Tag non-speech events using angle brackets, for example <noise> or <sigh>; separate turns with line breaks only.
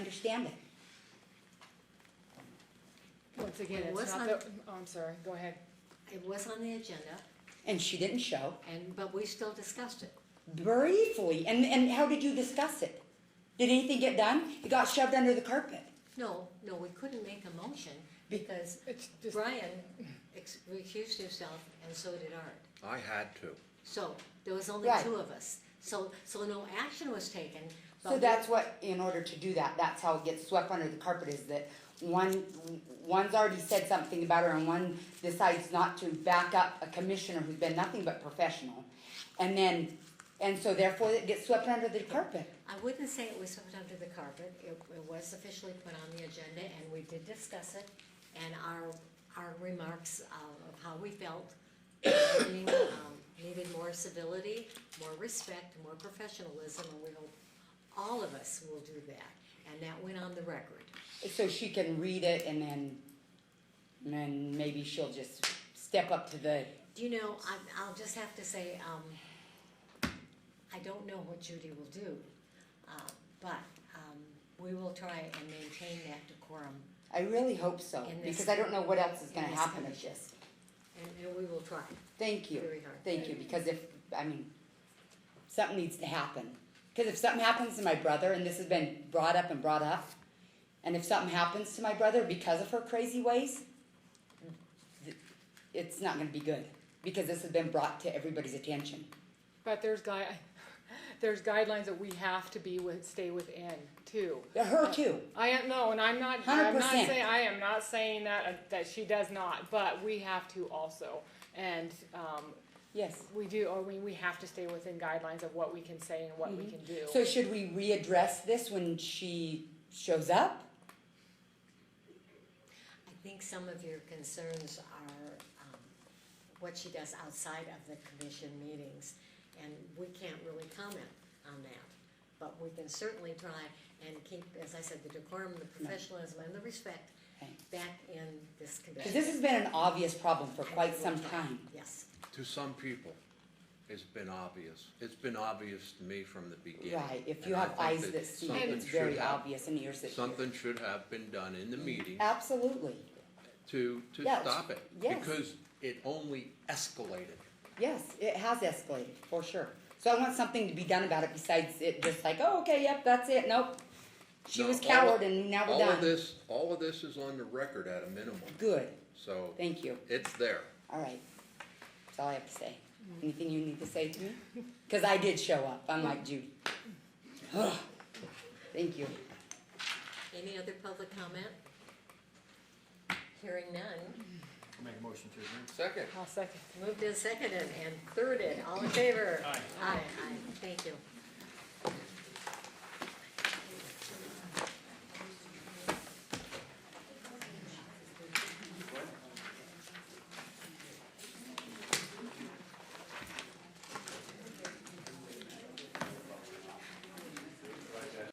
understand it.
Once again,
It
it's
was
not
on-
the, oh, I'm sorry, go ahead.
It was on the agenda,
And she didn't show
and, but we still discussed it.
briefly. And, and how did you discuss it? Did anything get done? It got shoved under the carpet.
No, no, we couldn't make a motion because
It's just,
Brian ex- recused himself and so did Art.
I had to.
So there was only
Right.
two of us. So, so no action was taken. but
So
we-
that's what, in order to do that, that's how it gets swept under the carpet is that one, one's already said something about her and one decides not to back up a commissioner who's been nothing but professional. And then, and so therefore it gets swept under the carpet.
I wouldn't say it was swept under the carpet. It, it was officially put on the agenda and we did discuss it. And our, our remarks uh, of how we felt needing, um, needed more civility, more respect, more professionalism, and we hope all of us will do that. And that went on the record.
So she can read it and then, and then maybe she'll just step up to the,
Do you know, I, I'll just have to say, um, I don't know what Judy will do, uh, but, um, we will try and maintain that decorum,
I really hope so,
In this-
because I don't know what else is
in
gonna
this
happen with
commission.
this.
and, and we will try
Thank you.
very hard.
Thank you, because if, I mean, something needs to happen. Because if something happens to my brother, and this has been brought up and brought up, and if something happens to my brother because of her crazy ways, th- it's not gonna be good, because this has been brought to everybody's attention.
but there's guy, there's guidelines that we have to be with, stay within too.
Her too.
I am, no, and I'm not, I'm not
100%.
saying, I am not saying that, uh, that she does not, but we have to also. And, um,
Yes.
we do, or we, we have to stay within guidelines of what we can say and what we can do.
So should we readdress this when she shows up?
I think some of your concerns are, um, what she does outside of the commission meetings, and we can't really comment on that. But we can certainly try and keep, as I said, the decorum, the professionalism, and the respect
Okay.
back in this
Because
commission.
this has been an obvious problem for quite some time.
Yes.
To some people, it's been obvious. It's been obvious to me from the beginning.
Right, if you
And I
have
think
eyes
that
that see,
something
it's
should
very
have-
obvious and ears that hear.
Something should have been done in the meeting
Absolutely,
to, to
Yes,
stop it.
yes.
Because it only escalated.
yes, it has escalated, for sure. So I want something to be done about it besides it just like, oh, okay, yep, that's it, nope. She
Now,
was
all of-
coward and now we're
All of
done.
this, all of this is on the record at a minimum,
Good,
so
thank you,
it's there.
all right. That's all I have to say. Anything you need to say to me? Cause I did show up, unlike Judy. Ugh. <sighs> Thank you.
Any other public comment? Hearing none.
Make a motion to adjourn.
Second.
I'll second.
Moved and seconded and thirded. All in favor? Aye. Aye, aye. Thank you.